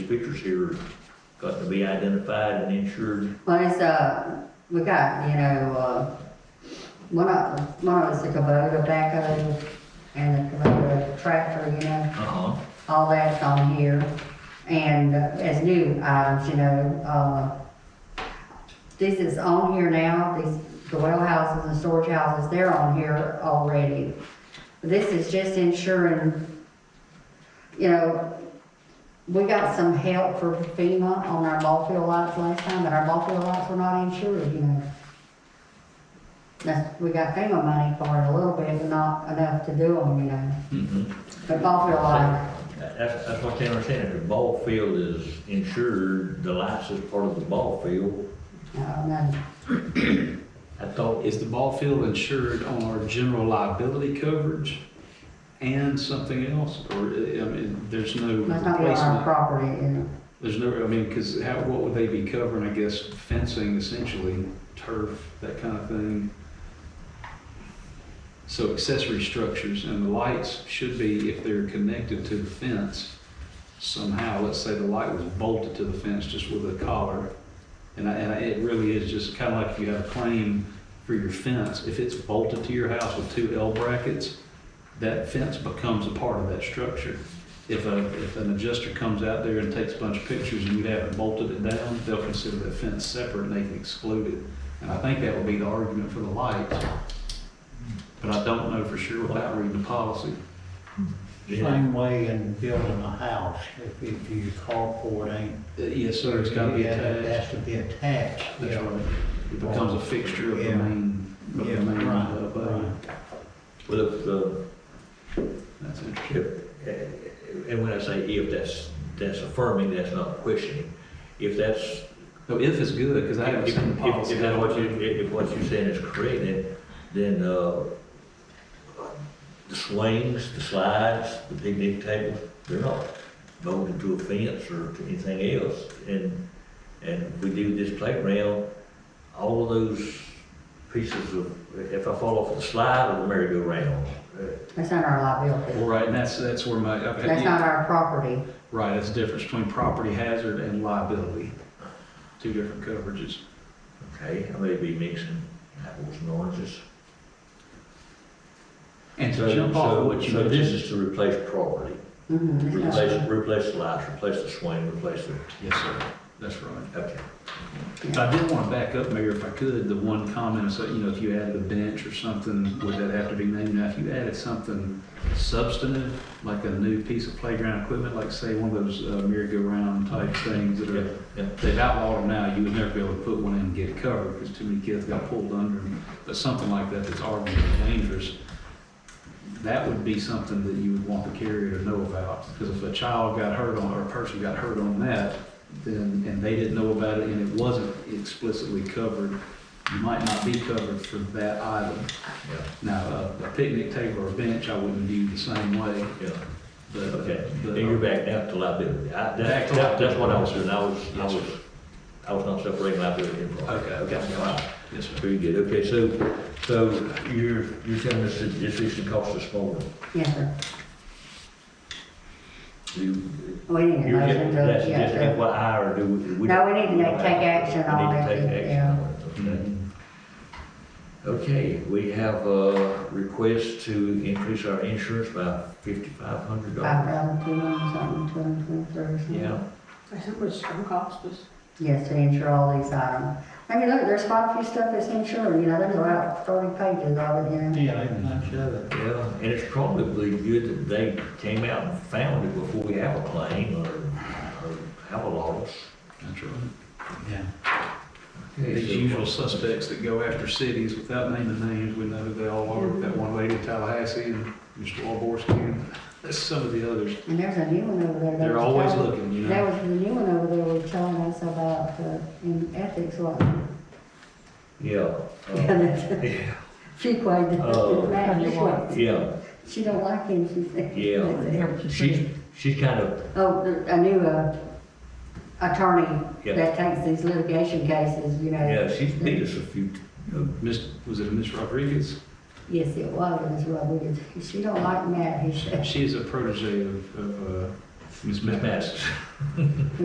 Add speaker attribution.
Speaker 1: pictures here got to be identified and insured.
Speaker 2: Well, it's, uh, we got, you know, uh, one of, one of us, the Kubota backhoe and the Kubota tractor, you know,
Speaker 1: Uh-huh.
Speaker 2: all that's on here. And uh, as new items, you know, uh, this is on here now, these, the well houses and storage houses, they're on here already. This is just ensuring, you know, we got some help for FEMA on our ball field lots last time, but our ball field lots were not insured, you know. That's, we got FEMA money for it a little bit, but not enough to do them, you know.
Speaker 1: Mhm.
Speaker 2: But ball field lots,
Speaker 1: That's, that's what they understand, if the ball field is insured, the lights is part of the ball field.
Speaker 2: no, no.
Speaker 1: I thought,
Speaker 3: Is the ball field insured on our general liability coverage and something else? Or, I mean, there's no
Speaker 2: That's not what our
Speaker 3: replacement?
Speaker 2: property is.
Speaker 3: There's no, I mean, because how, what would they be covering? I guess fencing essentially, turf, that kind of thing. So accessory structures and the lights should be, if they're connected to the fence somehow, let's say the light was bolted to the fence just with a collar. And I, and I, it really is just kind of like if you have a claim for your fence, if it's bolted to your house with two L brackets, that fence becomes a part of that structure. If a, if an adjuster comes out there and takes a bunch of pictures and you haven't bolted it down, they'll consider that fence separate and they can exclude it. And I think that would be the argument for the lights. But I don't know for sure without reading the policy.
Speaker 1: yeah,
Speaker 4: Same way in building a house, if, if you carport ain't.
Speaker 3: Uh, Yes, sir, it's gotta be
Speaker 4: Yeah, It
Speaker 3: attached.
Speaker 4: has to be attached,
Speaker 3: That's
Speaker 4: yeah.
Speaker 3: right. It becomes a fixture of the
Speaker 4: Yeah.
Speaker 3: main, of the
Speaker 4: Yeah,
Speaker 3: main, uh,
Speaker 4: right,
Speaker 3: building.
Speaker 4: right.
Speaker 1: well, if, uh,
Speaker 3: That's interesting.
Speaker 1: if, and when I say if, that's, that's affirming, that's not questioning. If that's
Speaker 3: No, if is good, because I
Speaker 1: If,
Speaker 3: haven't
Speaker 1: if,
Speaker 3: seen the
Speaker 1: if
Speaker 3: policy.
Speaker 1: that's what you, if if what you're saying is correct, then, then, uh, the swings, the slides, the picnic tables, they're not bolted to a fence or to anything else. And, and we do this playground, all of those pieces of, if I fall off the slide or the merry-go-round, uh,
Speaker 2: That's not our liability.
Speaker 3: Well, right, and that's, that's where my, okay,
Speaker 2: That's
Speaker 3: yeah.
Speaker 2: not our property.
Speaker 3: Right, that's the difference between property hazard and liability. Two different coverages.
Speaker 1: okay, I may be mixing apples and oranges.
Speaker 3: And
Speaker 1: So-
Speaker 3: to jump off
Speaker 1: so-
Speaker 3: of what you
Speaker 1: So this
Speaker 3: mentioned.
Speaker 1: is to replace property.
Speaker 2: Mhm, it's not-
Speaker 1: Replace, replace the lights, replace the swing, replace the,
Speaker 3: Yes, sir, that's right.
Speaker 1: okay.
Speaker 3: I did want to back up, Mayor, if I could, the one comment, so, you know, if you added a bench or something, would that have to be named? Now, if you added something substantive, like a new piece of playground equipment, like say one of those uh, merry-go-round type things that are,
Speaker 1: Yeah,
Speaker 3: they've outlawed them now, you would never be able to put one in and get it covered because too many kids got pulled under them. But something like that that's arguably dangerous, that would be something that you would want the carrier to know about. Because if a child got hurt on, or a person got hurt on that, then, and they didn't know about it and it wasn't explicitly covered, you might not be covered for that item.
Speaker 1: yeah,
Speaker 3: Now, a- a picnic table or a bench, I wouldn't view the same way,
Speaker 1: yeah,
Speaker 3: but.
Speaker 1: okay.
Speaker 3: but-
Speaker 1: And you're back now to liability. I,
Speaker 3: Back
Speaker 1: that,
Speaker 3: to
Speaker 1: that, that's
Speaker 3: liability.
Speaker 1: what I was doing. I was, I
Speaker 3: Yes,
Speaker 1: was, I was not separating liability and wrong.
Speaker 3: Okay, okay.
Speaker 1: All right.
Speaker 3: Yes, sir.
Speaker 1: Very good. Okay, so, so you're, you're telling us that this issue cost us more.
Speaker 2: Yes, sir.
Speaker 1: You,
Speaker 2: We need a
Speaker 1: you're
Speaker 2: motion
Speaker 1: just,
Speaker 2: to,
Speaker 1: that's
Speaker 2: yeah,
Speaker 1: just
Speaker 2: sure.
Speaker 1: FYI or do we- we?
Speaker 2: No, we need to make- take action on
Speaker 1: We need to
Speaker 2: it,
Speaker 1: take action
Speaker 2: yeah.
Speaker 1: on it,
Speaker 3: Mm-hmm.
Speaker 1: okay. Okay, we have a request to increase our insurance by fifty-five hundred
Speaker 2: Five
Speaker 1: dollars.
Speaker 2: thousand two hundred something, two hundred twenty-three or something.
Speaker 1: Yeah.
Speaker 5: That's how much it cost us.
Speaker 2: Yes, to insure all these items. I mean, look, there's quite a few stuff that's insured, you know, there's about thirty pages of it, you know.
Speaker 4: Yeah, ain't much of it.
Speaker 1: Yeah, and it's probably good that they came out and found it before we have a claim or, or have a loss.
Speaker 3: That's right.
Speaker 4: Yeah.
Speaker 3: These usual suspects that go after cities without naming names, we know who they all are. That one lady in Tallahassee and Mr. Walborski, and that's some of the others.
Speaker 2: And there's a new one over there. that
Speaker 3: They're
Speaker 2: was
Speaker 3: always
Speaker 2: telling-
Speaker 3: looking, you
Speaker 2: There
Speaker 3: know.
Speaker 2: was a new one over there was telling us about, uh, in ethics, what,
Speaker 1: Yeah.
Speaker 2: Yeah,
Speaker 1: uh,
Speaker 2: that's- she quite,
Speaker 1: Oh.
Speaker 2: this way.
Speaker 1: Yeah,
Speaker 2: she don't like him, she said.
Speaker 1: yeah. She's, she's kind of,
Speaker 2: Oh, the- a new uh, attorney
Speaker 1: Yeah.
Speaker 2: that takes these litigation cases, you know.
Speaker 1: yeah, she's beat us a few,
Speaker 3: Miss, was it Miss Rodriguez?
Speaker 2: Yes, it was, it was Rodriguez. She don't like Matt, he said.
Speaker 3: She is a protege of, of, uh, Miss
Speaker 1: Miss
Speaker 3: Mathis.
Speaker 1: Mattson.